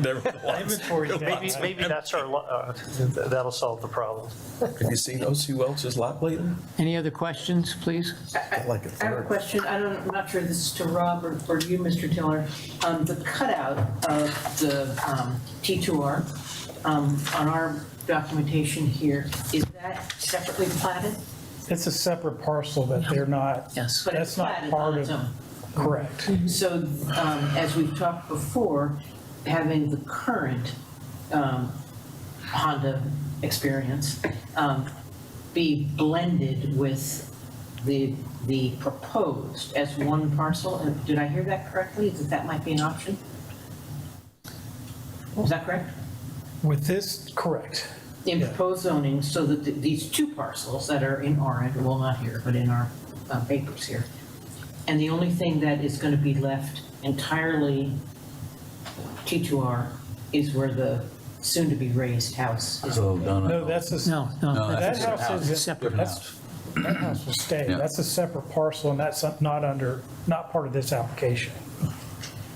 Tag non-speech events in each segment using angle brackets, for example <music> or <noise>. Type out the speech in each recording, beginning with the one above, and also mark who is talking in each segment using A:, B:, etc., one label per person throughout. A: There
B: <laughs>
A: were lots.
B: Inventory,
A: There were
B: maybe,
A: lots.
B: maybe that's our, lo- uh, th- that'll solve the problem.
A: Have you seen O.C. Welch's lot lately?
C: Any other questions, please?
A: Like a
D: I have a
A: third.
D: question, I don't, I'm not sure this is to Rob or, or you, Mr. Tiller. Um, the cutout of the, um, T2R, um, on our documentation here, is that separately platted?
E: It's a separate parcel that they're not,
D: Yes. But it's
E: that's not
D: platted
E: part
D: on its own.
E: of, correct.
D: So, um, as we've talked before, having the current, um, Honda experience, um, be blended with the, the proposed as one parcel, and did I hear that correctly, that that might be an option? Is that correct?
E: With this, correct.
D: In proposed zoning, so that th- these two parcels that are in orange, well, not here, but in our uh, papers here. And the only thing that is going to be left entirely T2R is where the soon-to-be raised house is.
F: So, no,
E: No,
F: no, no.
E: that's a.
C: No, no. No,
E: That
F: that's a
E: house
F: house.
E: is,
C: Separate
E: that's, that house will stay.
F: Yeah.
E: That's a separate parcel and that's not under, not part of this application.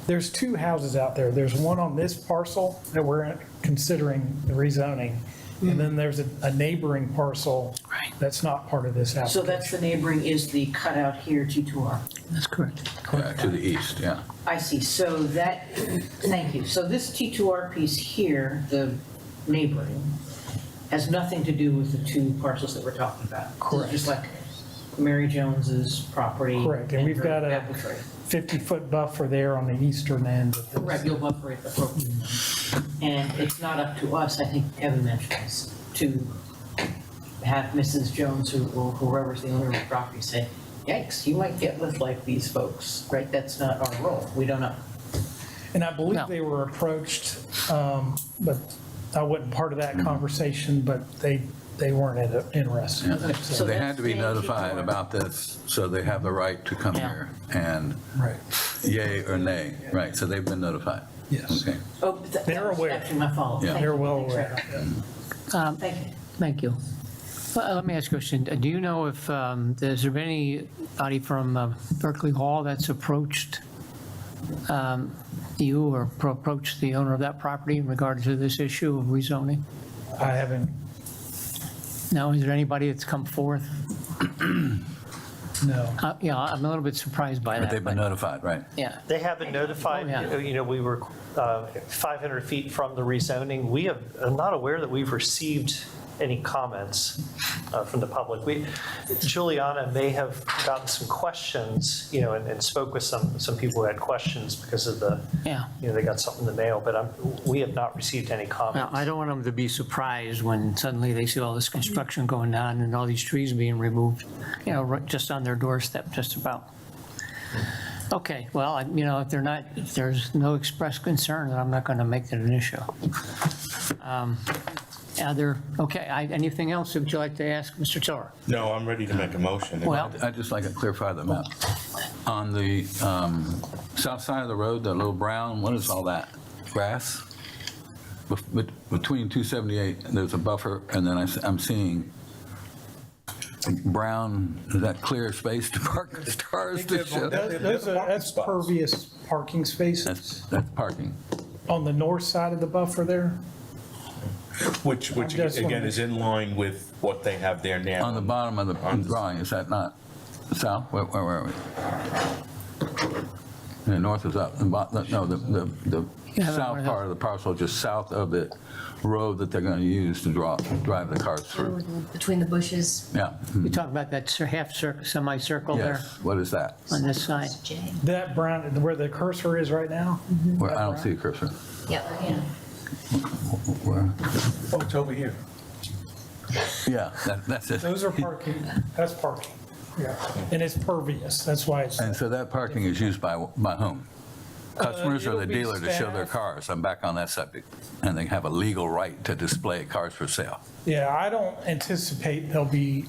E: There's two houses out there. There's one on this parcel that we're considering the rezoning. And then there's a a neighboring parcel.
C: Right.
E: That's not part of this
D: So
E: application.
D: that's the neighboring is the cutout here, T2R.
C: That's correct.
F: Yeah, To the east, yeah.
D: I see, so that, thank you. So this T2R piece here, the neighboring, has nothing to do with the two parcels that we're talking about. It's
E: Correct.
D: Just like Mary Jones's property.
E: Correct, and we've got a
D: Apple tree.
E: 50-foot buffer there on the eastern end. of this.
D: Correct, you'll buffer it appropriately. And it's not up to us, I think Kevin mentioned this, to have Mrs. Jones who- or whoever's the owner of the property say, yikes, you might get with like these folks, right? That's not our role, we don't know.
E: And I
C: No.
E: believe they were approached, um, but I wasn't part of that conversation, but they, they weren't in- interested.
D: So
F: So they
D: that's
F: had to be
D: staying
F: notified
D: T2R.
F: about this, so they have the right to come
C: Yeah.
F: here and
E: Right.
F: yay or nay, right? So they've been notified.
E: Yes.
F: Okay.
D: Oh, but that-
E: They're
D: that was
E: aware.
D: actually my fault.
F: Yeah.
D: Thank
E: They're
D: you.
E: well
D: Thanks,
E: aware.
D: Randall.
C: Um,
D: Thank you.
C: Thank you. Well, Let me ask you a question. Do you know if, um, has there been anybody from uh, Berkeley Hall that's approached um, you or pro- approached the owner of that property in regard to this issue of rezoning?
E: I haven't,
C: Now, is there anybody that's come forth?
E: no.
C: Uh, Yeah, I'm a little bit surprised by
F: But
C: that.
F: they've been notified, right?
C: Yeah,
B: They haven't
C: Oh, yeah.
B: notified, you know, we were uh, 500 feet from the rezoning. We have, I'm not aware that we've received any comments uh, from the public. We, Juliana may have gotten some questions, you know, and and spoke with some, some people who had questions because of the,
C: yeah.
B: you know, they got something in the mail, but I'm, we have not received any
C: Now,
B: comments.
C: I don't want them to be surprised when suddenly they see all this construction going on and all these trees being removed, you know, right- just on their doorstep, just about. Okay, well, I- you know, if they're not, if there's no express concern, then I'm not going to make that an issue. Um, Other, okay, I- anything else would you like to ask, Mr. Tiller?
G: No, I'm ready to make a motion.
C: Well,
F: I'd just like to clarify the map. On the um, south side of the road, that little brown, what is all that? Grass? Bef- bet- Between 278, there's a buffer, and then I s- I'm seeing brown, is that clear space to park <laughs> the cars? to show?
E: That- Those are, that's pervious parking spaces
F: That's that's parking.
E: on the north side of the buffer there.
G: Which, which
E: I'm just
G: again is in line with what they have there now.
F: On the bottom of the drawing, is that not south? Where where were we? The north is up, the bo- the- no, the, the, the
C: Yeah, that
F: south
C: one
F: part of the parcel, just south of the road that they're going to use to draw, drive the cars through.
H: Between the bushes.
F: Yeah.
C: you talk about that cir- half circle, semicircle there
F: Yes, what is that?
C: on this side.
H: Jay.
E: That brown, where the cursor is right now,
F: Where, I don't see a cursor.
H: Yeah.
F: Where?
A: Oh, it's over here.
F: Yeah, that- that's it.
E: those are parking, that's parking. Yeah. And it's pervious, that's why it's,
F: And so that parking is used by, by whom? Customers or
E: Uh, it'll
F: the
E: be
F: dealer to show their
E: staff.
F: cars? I'm back on that subject. And they have a legal right to display cars for sale.
E: yeah, I don't anticipate they'll be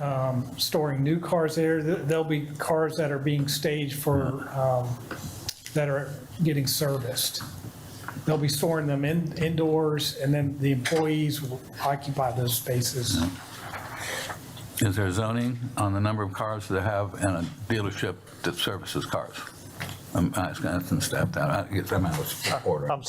E: um, storing new cars there. There- There'll be cars that are being staged for, um, that are getting serviced. They'll be storing them in indoors, and then the employees will occupy those spaces.
F: Is there zoning on the number of cars they have in a dealership that services cars? I'm asking, asking staff that, I guess I'm out of order.
B: I'm